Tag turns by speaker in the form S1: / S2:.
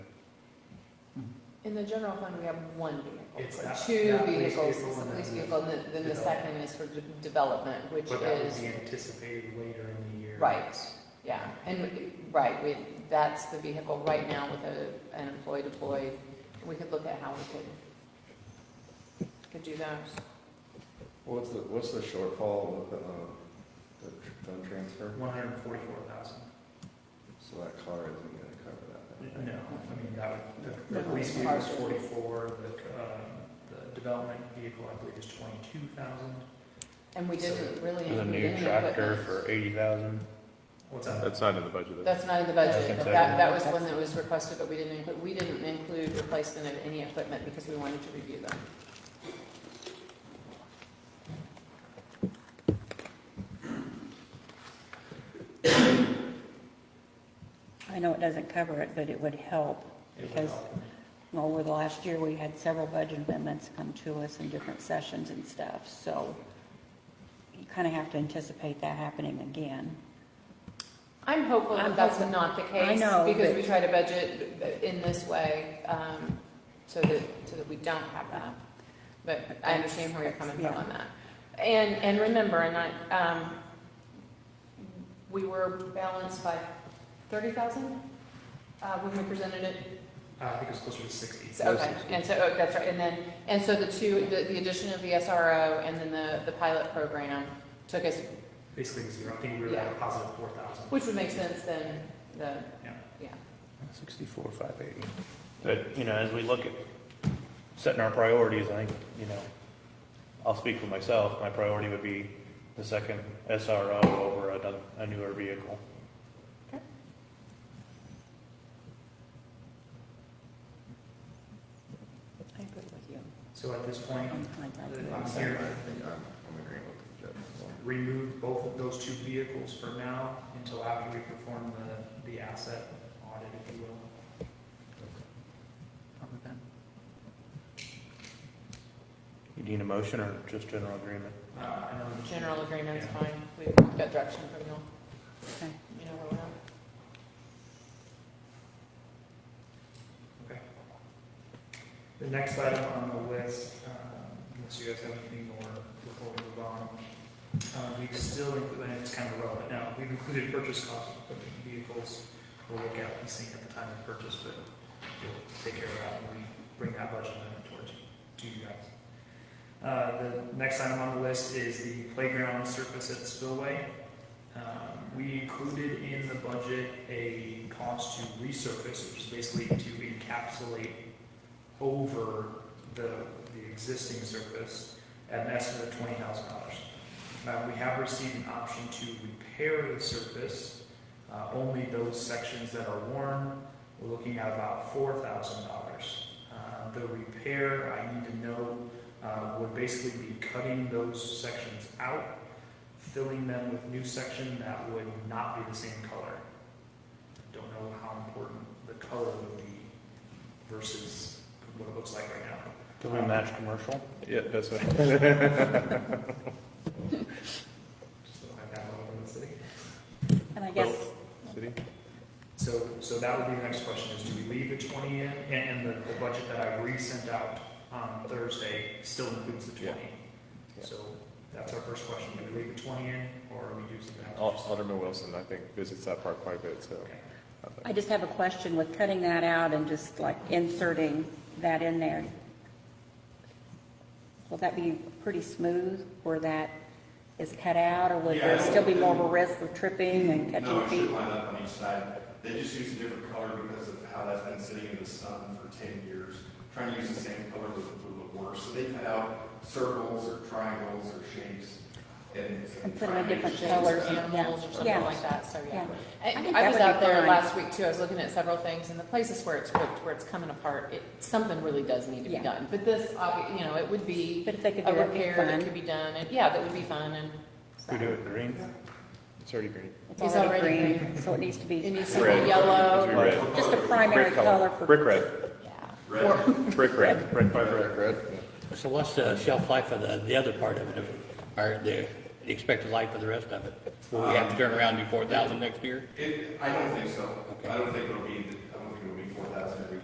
S1: In the general fund, we have one vehicle,
S2: It's
S1: or
S2: not-
S1: two
S2: not police
S1: vehicles,
S2: vehicle
S1: it's a
S2: and
S1: police
S2: then the
S1: vehicle, and then- then the
S2: development.
S1: second is for de- development, which
S2: But that would
S1: is,
S2: be anticipated later in the year.
S1: right, yeah. And, we- right, we, that's the vehicle right now with a, an employee deployed, we could look at how we could, could do those.
S3: What's the, what's the shortfall with the, um, the tr- fund transfer?
S2: One hundred and forty-four thousand.
S3: So that car isn't gonna cover that. then,
S2: No,
S3: right?
S2: I mean, that would, the- the
S1: No,
S2: police
S1: it's
S2: vehicle is
S1: partial.
S2: forty-four, the, um, the development vehicle, I believe, is twenty-two thousand.
S1: And we didn't really
S4: There's a
S1: include
S4: new
S1: any
S4: tractor
S1: equipment.
S4: for eighty thousand.
S2: What's that?
S5: That's not in the budget.
S1: That's not in the
S4: Yeah, I
S1: budget,
S4: think
S1: but
S4: so.
S1: that, that was one that was requested, but we didn't include, we didn't include replacement of any equipment because we wanted to review them.
S6: I know it doesn't cover it, but it would help.
S2: It would
S6: Because-
S2: help.
S6: Over the last year, we had several budget amendments come to us in different sessions and stuff, so you kind of have to anticipate that happening again.
S1: I'm hopeful that
S6: I'm
S1: that's
S6: hopeful-
S1: not the
S6: I
S1: case,
S6: know,
S1: because
S6: but-
S1: we try to budget in this way, um, so that, so that we don't have that. But I understand where you're coming from on that. And, and remember, and I, um, we were balanced by thirty thousand, uh, when we presented it
S2: Uh, I think it's closer to sixty.
S1: So, Okay, and so, oh, that's right, and then, and so the two, the, the addition of the SRO and then the, the pilot program took us,
S2: Basically zero. I think we were at a
S1: Yeah.
S2: positive four thousand.
S1: which would make sense then, the,
S4: Sixty-four, five eighty. But, you know, as we look at setting our priorities, I think, you know, I'll speak for myself, my priority would be the second SRO over another, a newer vehicle.
S6: I agree with you.
S2: So at this point,
S6: I
S2: I'm
S3: I'm
S2: here,
S3: saying, I think I'm, I'm agreeing with the judge as well.
S2: remove both of those two vehicles for now until after we perform the, the asset audit, if you will. Other than-
S4: You need a motion or just general agreement?
S2: Uh, I know. the-
S1: general agreement's
S2: Yeah.
S1: fine, we've got direction from you,
S6: Okay.
S1: you know where we're at.
S2: The next item on the list, um, unless you guys have anything more before we move on, uh, we've still included, and it's kind of relevant now, we've included purchase costs of the vehicles. We'll look at leasing at the time of purchase, but we'll take care of that when we bring that budget amendment towards you, to you guys. Uh, the next item on the list is the playground surface at Spillway. Um, We included in the budget a cost to resurface, which is basically to encapsulate over the, the existing surface at an estimate of twenty thousand dollars. we have received an option to repair the surface, uh, only those sections that are worn. We're looking at about four thousand dollars. Uh, the repair, I need to know, uh, would basically be cutting those sections out, filling them with new section that would not be the same color. Don't know how important the color would be versus what it looks like right now.
S4: Do we match commercial?
S5: Yeah, that's what.
S2: Just don't have that level in the city.
S6: And I guess,
S5: City?
S2: So, so that would be the next question, is do we leave the twenty in, and, and the, the budget that I resent out on Thursday still includes the
S5: Yeah.
S2: twenty?
S5: Yeah.
S2: So, that's our first question, do we leave the twenty in, or are we using that?
S5: Al- Alderman Wilson, I think, visits that park quite a bit, so.
S2: Okay.
S5: I think-
S6: I just have a question with cutting that out and just like inserting that in there. Will that be pretty smooth where that is cut out, or would there
S7: Yeah.
S6: still be more of a risk of tripping and
S7: No,
S6: catching
S7: it
S6: feet?
S7: should line up on each side. They just use a different color because of how that's been sitting in the sun for ten years. Trying to use the same color would would look worse. So they cut out circles or triangles or shapes and.
S6: And put 'em in different
S7: triangles.
S1: colors,
S6: Colors, yeah.
S1: animals, or something
S6: Yeah.
S1: like that, so, yeah.
S6: Yeah.
S1: I
S6: I think
S1: I
S6: that
S1: was
S6: would be
S1: out there
S6: fine.
S1: last week too, I was looking at several things, and the places where it's ripped, where it's coming apart, it, something really does need to be
S6: Yeah.
S1: done. But this, obvi- you know, it would be
S6: But if they could
S1: a
S6: do it, it'd be
S1: repair
S6: fun.
S1: that could be done, and, yeah, that would be fun, and.
S4: We do it green?
S5: It's already green.
S6: It's
S1: It's
S6: already
S1: already
S6: green, so it needs to
S1: It
S6: be
S1: needs to
S5: Red.
S1: be yellow.
S5: It's red.
S6: just a primary
S5: Brick color.
S6: color for.
S5: Brick red,
S1: Yeah.
S7: Red.
S1: Or-
S5: brick red, brick red.
S3: Red, red?
S8: So what's the shelf life of the, the other part of it, or the the expected life of the rest of it? Will we have to turn around and do four thousand next year?
S7: It, I don't think so. I don't think it'll be